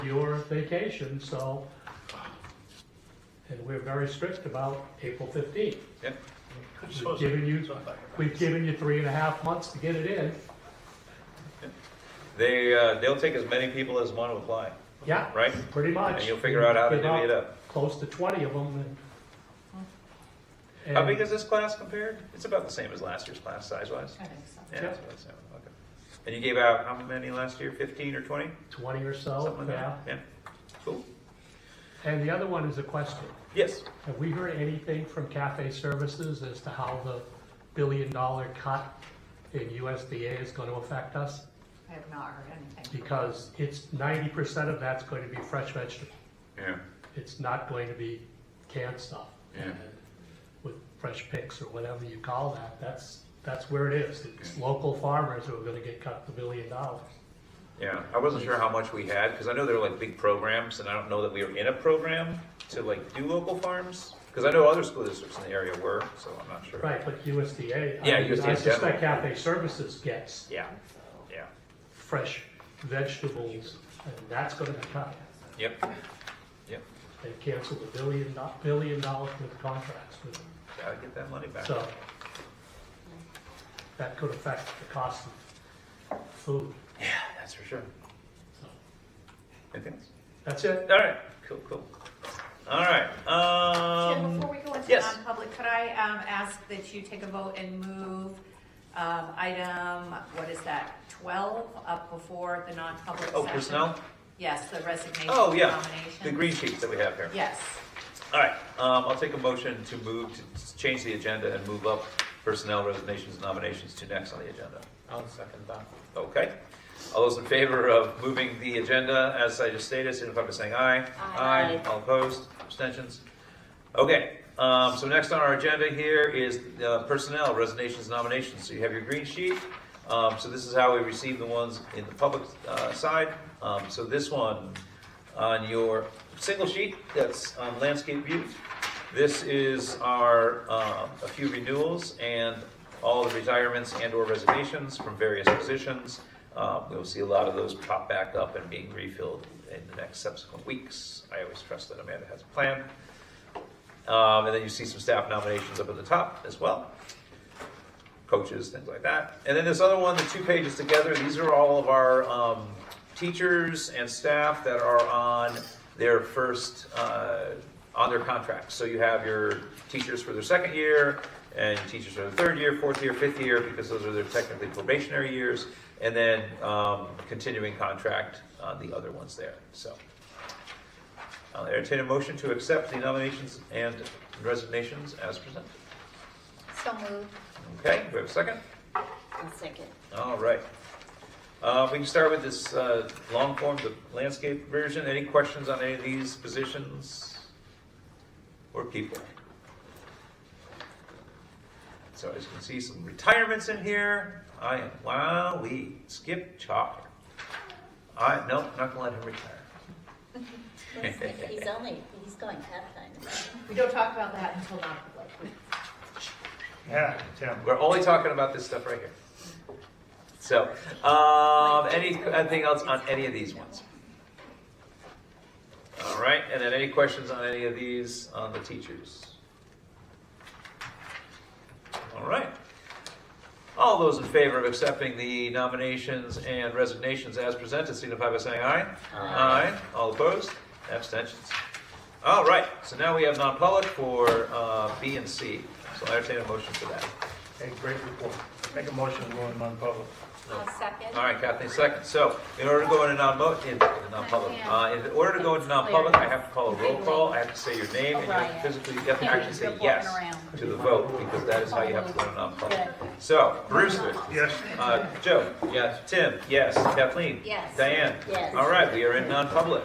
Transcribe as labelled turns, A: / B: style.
A: your vacation, so, and we're very strict about April fifteenth.
B: Yep.
A: We've given you, we've given you three and a half months to get it in,
B: They, uh, they'll take as many people as want to apply,
A: yeah,
B: right?
A: pretty much.
B: And you'll figure out how to
A: Give
B: divvy it up.
A: Close to twenty of them and.
B: How
A: and-
B: big is this class compared? It's about the same as last year's class, size-wise?
C: I think so.
B: Yeah,
A: Yeah.
B: that's about the same, okay. And you gave out how many last year, fifteen or twenty?
A: Twenty or so,
B: Something like
A: Oh, yeah.
B: that? Yeah. Cool.
A: And the other one is a question.
B: Yes,
A: Have we heard anything from Cafe Services as to how the billion-dollar cut in USDA is going to affect us?
C: I have not heard anything.
A: Because it's ninety percent of that's going to be fresh vegetable.
B: yeah,
A: It's not going to be canned stuff.
B: Yeah.
A: And With fresh picks or whatever you call that, that's, that's where it is. It's local farmers who are going to get cut the billion dollars.
B: yeah. I wasn't sure how much we had, because I know there were like big programs, and I don't know that we were in a program to like do local farms. Because I know other school districts in the area were, so I'm not sure.
A: Right, but USDA. I
B: Yeah,
A: mean,
B: USDA
A: I
B: 's general.
A: suspect Cafe Services gets
B: Yeah, yeah,
A: fresh vegetables, and that's going to be cut.
B: yep, yep.
A: They canceled a billion, do- billion dollars worth of contracts with them.
B: Gotta get that money back.
A: So that could affect the cost of food.
B: Yeah, that's for sure.
A: So
B: Anything else?
A: That's it.
B: All right, cool, cool. All right,
C: Tim,
B: um,
C: before we go into
B: yes.
C: non-public, could I um, ask that you take a vote and move um, item, what is that, 12 up before the non-public session?
B: oh, personnel?
C: Yes, the resignation
B: Oh, yeah,
C: nomination.
B: the green sheets that we have here.
C: Yes.
B: All right, um, I'll take a motion to move, to change the agenda and move up personnel resignations and nominations to next on the agenda.
D: I'll second that.
B: Okay. All those in favor of moving the agenda, as I just stated, signify by saying aye.
C: Aye.
B: All opposed, abstentions? Okay, um, so next on our agenda here is uh, personnel, resignations, nominations. So you have your green sheet. Um, so this is how we receive the ones in the public, uh, side. Um, so this one, on your single sheet, that's on landscape view. This is our, um, a few renewals and all the retirements and or resignations from various positions. Um, We'll see a lot of those pop back up and being refilled in the next subsequent weeks. I always trust that Amanda has a plan. Um, And then you see some staff nominations up at the top as well. Coaches, things like that. And then this other one, the two pages together, these are all of our um, teachers and staff that are on their first, uh, on their contracts. So you have your teachers for their second year, and teachers for the third year, fourth year, fifth year, because those are their technically probationary years, and then um, continuing contract on the other ones there, so. I'll entertain a motion to accept the nominations and resignations as presented.
E: So moved.
B: Okay, we have a second?
E: I'll second.
B: All right. Uh, We can start with this uh, long form, the landscape version. Any questions on any of these positions or people? So as you can see, some retirements in here. I am, wow, we skip Chalker. I, nope, not gonna let him retire.
E: He's only, he's going half-time.
C: We don't talk about that until non-public.
D: Yeah, Tim.
B: We're only talking about this stuff right here. So, um, any, anything else on any of these ones? All right, and then any questions on any of these on the teachers? All right. All those in favor of accepting the nominations and resignations as presented, signify by saying aye. Aye. All opposed? Abstentions? All right, so now we have non-public for, uh, B and C. So I entertain a motion for that.
D: Hey, great report. Make a motion to go in non-public.
E: I'll second.
B: All right, Kathleen, second. So, in order to go into non in, in non-public, uh, in order to go into non-public, I have to call a roll call, I have to say your name, and you have to physically, you have to actually say yes to the vote, because that is how you have to go into non-public. So, Brewster,
D: Yes.
B: uh, Joe? Yes. Tim? Yes. Kathleen?
E: Yes.
B: Diane?
E: Yes.
B: All right, we are in non-public.